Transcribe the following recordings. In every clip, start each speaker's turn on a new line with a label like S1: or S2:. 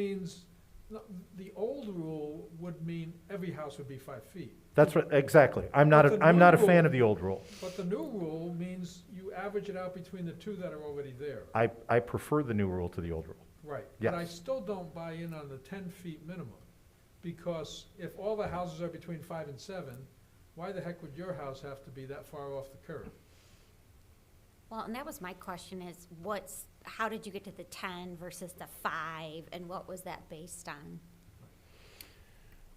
S1: means, no, the old rule would mean every house would be five feet,
S2: That's right, exactly. I'm not,
S1: But
S2: a-
S1: the
S2: I'm not a
S1: new
S2: fan
S1: rule-
S2: of the old rule.
S1: but the new rule means you average it out between the two that are already there.
S2: I, I prefer the new rule to the old rule.
S1: Right. But I
S2: Yes.
S1: still don't buy in on the ten feet minimum, because if all the houses are between five and seven, why the heck would your house have to be that far off the curb?
S3: Well, and that was my question is what's, how did you get to the ten versus the five and what was that based on?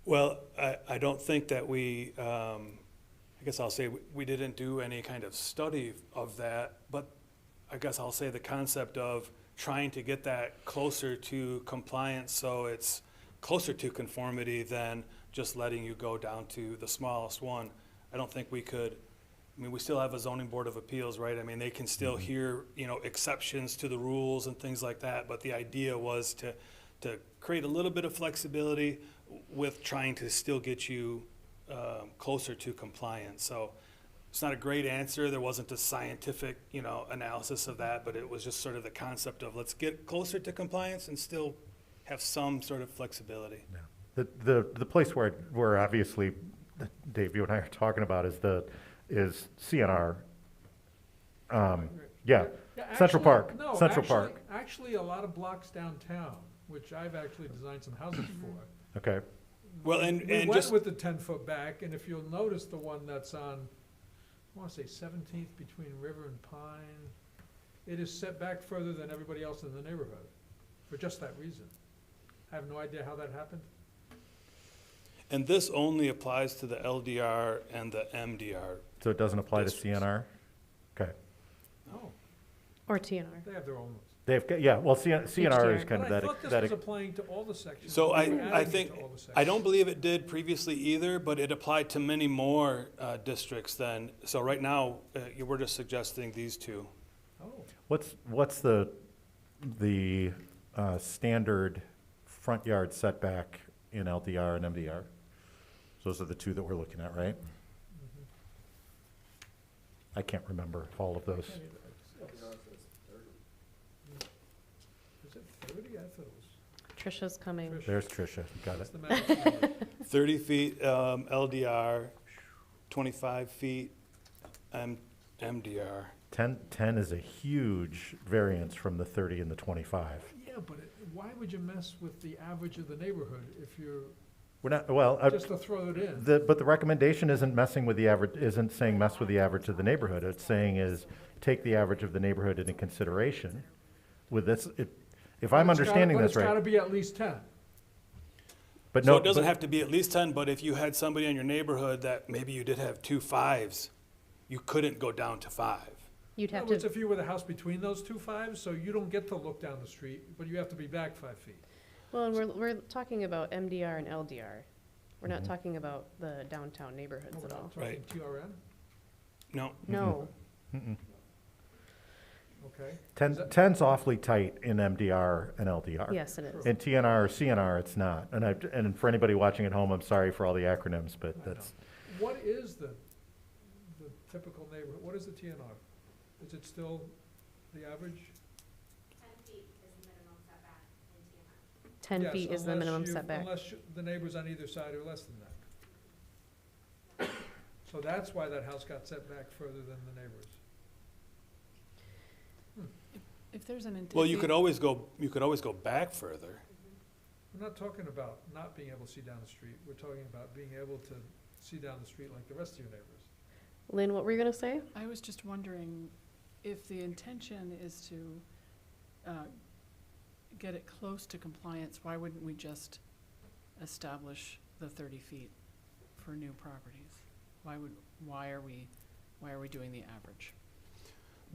S4: Well, I, I don't think that we, um, I guess I'll say, we- we didn't do any kind of study of that, but I guess I'll say the concept of trying to get that closer to compliance, so it's closer to conformity than just letting you go down to the smallest one. I don't think we could, I mean, we still have a zoning board of appeals, right? I mean, they can
S1: Mm-hmm.
S4: still hear, you know, exceptions to the rules and things like that, but the idea was to, to create a little bit of flexibility with trying to still get you um, closer to compliance. So it's not a great answer. There wasn't a scientific, you know, analysis of that, but it was just sort of the concept of let's get closer to compliance and still have some sort of flexibility.
S2: The, the, the place where, where obviously, Dave, you and I are talking about is the, is CNR. Um, yeah,
S1: Yeah,
S2: Central
S1: actually-
S2: Park,
S1: no,
S2: Central
S1: actually-
S2: Park,
S1: Actually, a lot of blocks downtown, which I've actually designed some houses for,
S2: okay.
S4: Well, and,
S1: We
S4: and
S1: went
S4: just,
S1: with the ten foot back, and if you'll notice the one that's on, I wanna say seventeenth between River and Pine, it is set back further than everybody else in the neighborhood, for just that reason. I have no idea how that happened.
S4: and this only applies to the LDR and the MDR.
S2: So it doesn't apply to
S4: Districts.
S2: CNR? Okay.
S1: No,
S5: Or TNR.
S1: they have their own ones.
S2: They've, got- yeah, well, CN- CNR is
S5: HDR.
S2: kind
S1: But I
S2: of that,
S1: thought
S2: ex-
S1: this
S2: that,
S1: was
S2: ex-
S1: applying to all the sections.
S4: So
S1: We were
S4: I, I
S1: adding it
S4: think,
S1: to all the
S4: I
S1: sections.
S4: don't believe it did previously either, but it applied to many more uh, districts than, so right now, uh, you were just suggesting these two.
S1: Oh,
S2: what's, what's the, the, uh, standard front yard setback in LDR and MDR? Those are the two that we're looking at, right? I can't remember all of those.
S1: can't even- it's- Hmm. Is it thirty? I thought it was.
S5: Trisha's coming.
S1: Trish,
S2: There's Tricia, got
S1: what's
S2: it.
S1: the matter with you?
S4: 30 feet um, LDR, 25 feet M- MDR.
S2: Ten, ten is a huge variance from the thirty and the twenty-five.
S1: Yeah, but it- why would you mess with the average of the neighborhood if you're,
S2: We're not, well, I-
S1: just to throw it in?
S2: the, but the recommendation isn't messing with the average, isn't saying mess with the average of the neighborhood. It's saying is, take the average of the neighborhood into consideration with this, if, if I'm
S1: But it's gotta-
S2: understanding this
S1: But it's gotta
S2: right.
S1: be at least ten.
S2: But
S4: So
S2: no,
S4: it doesn't
S2: but-
S4: have to be at least 10, but if you had somebody in your neighborhood that maybe you did have two fives, you couldn't go down to five.
S5: You'd
S1: In
S5: have
S1: other words,
S5: to,
S1: if you were the house between those two fives, so you don't get to look down the street, but you have to be back five feet.
S5: well, and we're, we're talking about MDR and LDR. We're not
S2: Mhm.
S5: talking about the downtown neighborhoods
S1: We're
S5: at
S1: not
S5: all.
S1: talking
S4: Right.
S1: TRN,
S4: No,
S5: No,
S2: Mm-mm.
S1: okay?
S2: Ten,
S1: Is that-
S2: ten's awfully tight in MDR and LDR.
S5: yes, it is.
S2: In TNR or CNR, it's not. And I, and for anybody watching at home, I'm sorry for all the acronyms, but
S1: I
S2: that's,
S1: What is the, the typical neighborhood, what is the TNR? Is it still the average?
S3: Ten feet is the minimum setback in TMR.
S5: Ten
S1: Yes,
S5: feet is the
S1: unless
S5: minimum
S1: you-
S5: setback.
S1: Unless you- the neighbors on either side are less than that. So that's why that house got set back further than the neighbors.
S6: If there's an.
S4: well, you
S6: if
S4: could always go, you could always go back further.
S1: We're not talking about not being able to see down the street, we're talking about being able to see down the street like the rest of your neighbors.
S5: Lynn, what were you gonna say?
S6: I was just wondering if the intention is to uh, get it close to compliance, why wouldn't we just establish the thirty feet for new properties? Why would, why are we, why are we doing the average?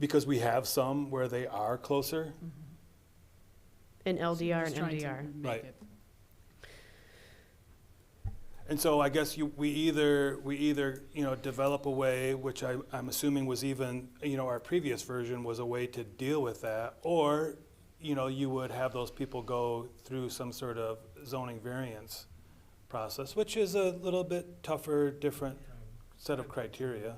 S4: Because we have some where they are closer.
S5: In
S6: So
S5: LDR
S6: just
S5: and
S6: trying to
S5: MDR.
S6: make
S4: Right.
S6: it-
S4: And so I guess you, we either, we either, you know, develop a way, which I, I'm assuming was even, you know, our previous version was a way to deal with that, or, you know, you would have those people go through some sort of zoning variance process, which is a little bit tougher, different set of criteria.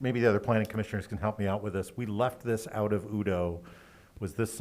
S2: Maybe the other planning. commissioners can help me out with this. We left this out of Udo Was this